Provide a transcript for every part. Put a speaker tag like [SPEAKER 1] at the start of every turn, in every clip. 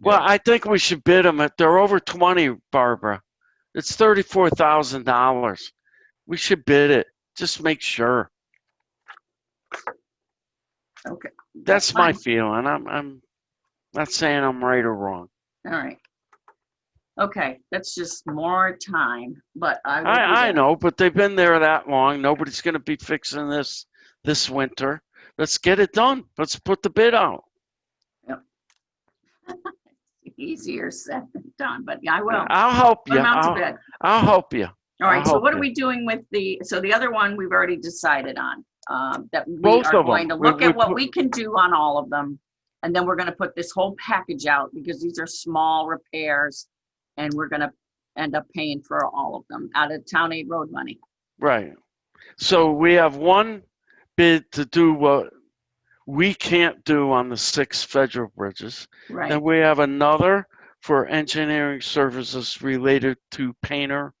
[SPEAKER 1] Well, I think we should bid them. If they're over 20, Barbara, it's $34,000. We should bid it. Just make sure.
[SPEAKER 2] Okay.
[SPEAKER 1] That's my
[SPEAKER 2] fine.
[SPEAKER 1] feeling. I'm, I'm not saying I'm right or wrong.
[SPEAKER 2] All right. Okay, that's just more time, but I. will do
[SPEAKER 1] I, I
[SPEAKER 2] that.
[SPEAKER 1] know, but they've been there that long. Nobody's going to be fixing this this winter. Let's get it done. Let's put the bid out.
[SPEAKER 2] Easier said than done, but yeah, I will.
[SPEAKER 1] I'll help
[SPEAKER 2] Put
[SPEAKER 1] you.
[SPEAKER 2] 'em out to
[SPEAKER 1] I'll,
[SPEAKER 2] bed.
[SPEAKER 1] I'll help you.
[SPEAKER 2] All right, so
[SPEAKER 1] I'll
[SPEAKER 2] what are
[SPEAKER 1] help
[SPEAKER 2] we doing with the, so the other one, we've already decided on, um, that we
[SPEAKER 1] Both
[SPEAKER 2] are
[SPEAKER 1] of 'em.
[SPEAKER 2] going to
[SPEAKER 1] We-
[SPEAKER 2] look
[SPEAKER 1] we
[SPEAKER 2] at what
[SPEAKER 1] put-
[SPEAKER 2] we can do on all of them. And then we're gonna put this whole package out because these are small repairs and we're gonna end up paying for all of them out of town aid road money.
[SPEAKER 1] Right. So we have one bid to do what we can't do on the six federal bridges.
[SPEAKER 2] Right,
[SPEAKER 1] And we have another for engineering services related to Painter,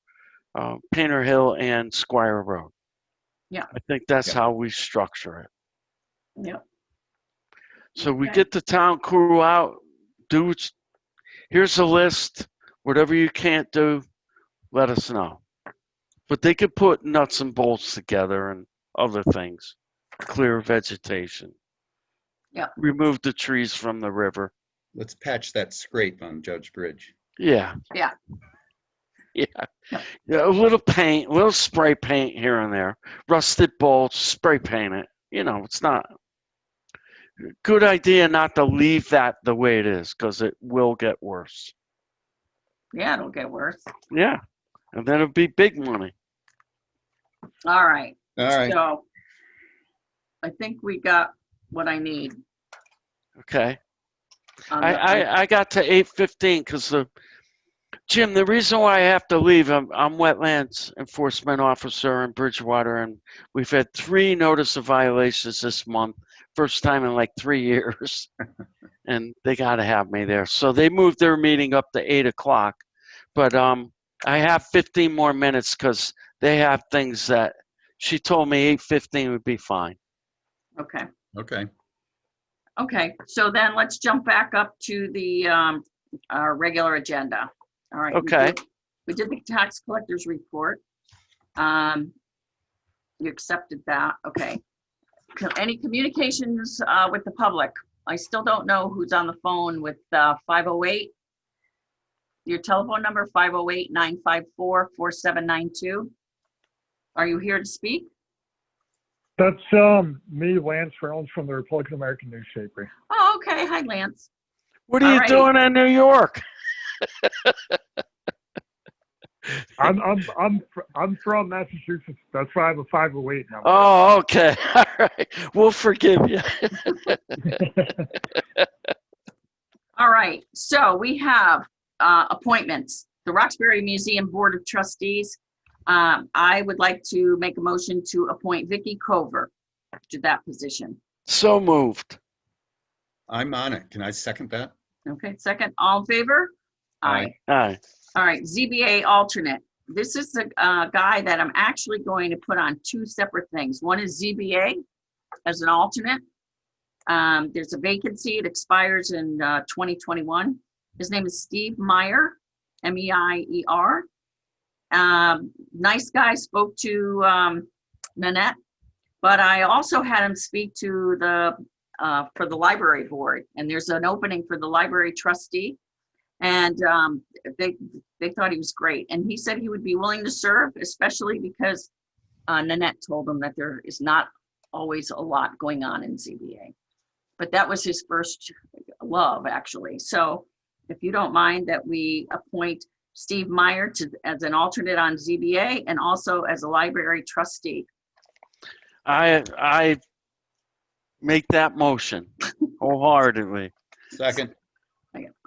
[SPEAKER 1] uh, Painter Hill and Squire Road.
[SPEAKER 2] Yeah.
[SPEAKER 1] I think that's
[SPEAKER 3] Yeah.
[SPEAKER 1] how we structure it.
[SPEAKER 2] yep,
[SPEAKER 1] So we
[SPEAKER 2] Okay.
[SPEAKER 1] get the town crew out, do, what you- here's a list, whatever you can't do, let us know. But they could put nuts and bolts together and other things, clear vegetation.
[SPEAKER 2] Yeah.
[SPEAKER 1] Remove the trees from the river.
[SPEAKER 3] Let's patch that scrape on Judge Bridge.
[SPEAKER 1] Yeah.
[SPEAKER 2] Yeah.
[SPEAKER 1] Yeah.
[SPEAKER 2] Yeah.
[SPEAKER 1] Yeah, a little paint, a little spray paint here and there, rusted bolts, spray paint it. You know, it's not good idea not to leave that the way it is because it will get worse.
[SPEAKER 2] yeah, it'll get worse.
[SPEAKER 1] Yeah. And then it'll be big money.
[SPEAKER 2] All right,
[SPEAKER 3] All right,
[SPEAKER 2] so. I think we got what I need.
[SPEAKER 1] Okay.
[SPEAKER 2] on
[SPEAKER 1] I,
[SPEAKER 2] the-
[SPEAKER 1] I, I got to 815 because the Jim, the reason why I have to leave, I'm, I'm wetlands enforcement officer in Bridgewater, and we've had three notice of violations this month, first time in like three years. and they got to have me there. So they moved their meeting up to 8 o'clock. But um, I have 15 more minutes because they have things that she told me 8.15 would be fine.
[SPEAKER 2] Okay.
[SPEAKER 3] okay.
[SPEAKER 2] Okay, so then let's jump back up to the, um, our regular agenda. All right. we
[SPEAKER 1] Okay.
[SPEAKER 2] did- We did the tax collector's report. Um, you accepted that, okay. Co- Any communications, uh, with the public? I still don't know who's on the phone with, uh, five oh eight. Your telephone number, 508-954-4792. Are you here to speak?
[SPEAKER 4] That's um, me, Lance Reynolds from the Republican American Newspaper.
[SPEAKER 2] Oh, okay, hi Lance.
[SPEAKER 1] What are you
[SPEAKER 2] Alrighty.
[SPEAKER 1] doing in New York?
[SPEAKER 4] I'm I'm I'm fr- I'm from Massachusetts. That's why I have a 508 number.
[SPEAKER 1] Oh, okay. All right. We'll forgive you.
[SPEAKER 2] All right, so we have uh, appointments. The Roxbury Museum Board of Trustees. Um, I would like to make a motion to appoint Vicky Cover to that position.
[SPEAKER 1] So moved.
[SPEAKER 3] I'm on it. Can I second that?
[SPEAKER 2] Okay, second, all in favor?
[SPEAKER 3] Aye.
[SPEAKER 1] Aye.
[SPEAKER 2] All right, ZBA alternate. This is the uh, guy that I'm actually going to put on two separate things. One is ZBA as an alternate. Um, There's a vacancy, it expires in uh, 2021. His name is Steve Meyer, E M-E-I-E-R. Um, Nice guy, spoke to um, Nanette, but I also had him speak to the, uh, for the library board. And there's an opening for the library trustee. And um, they they thought he was great and he said he would be willing to serve especially because uh, nanette told him that there is not always a lot going on in cba but that was his first love actually so if you don't mind that we appoint steve meyer to as an alternate on zba and also as a library trustee
[SPEAKER 1] I, I make that motion wholeheartedly.
[SPEAKER 3] Second,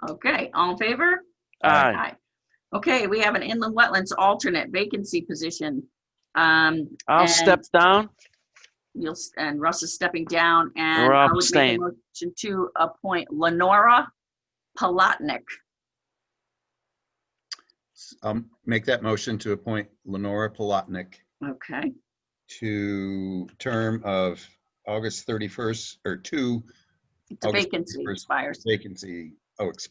[SPEAKER 2] okay all in favor
[SPEAKER 1] Aye.
[SPEAKER 2] okay we have an inland wetlands alternate vacancy position um
[SPEAKER 1] I'll
[SPEAKER 2] and-
[SPEAKER 1] step down.
[SPEAKER 2] You'll, s- and Russ is stepping down and
[SPEAKER 1] We're
[SPEAKER 2] I
[SPEAKER 1] all
[SPEAKER 2] would make a
[SPEAKER 1] staying.
[SPEAKER 2] motion to appoint Lenora Palatnik.
[SPEAKER 3] I'll Um, make that motion to appoint Lenora Palatnik
[SPEAKER 2] Okay,
[SPEAKER 3] to term of August 31st, or two
[SPEAKER 2] it's a
[SPEAKER 3] August
[SPEAKER 2] vacancy
[SPEAKER 3] 31st.
[SPEAKER 2] expires.
[SPEAKER 3] vacancy, oh, expires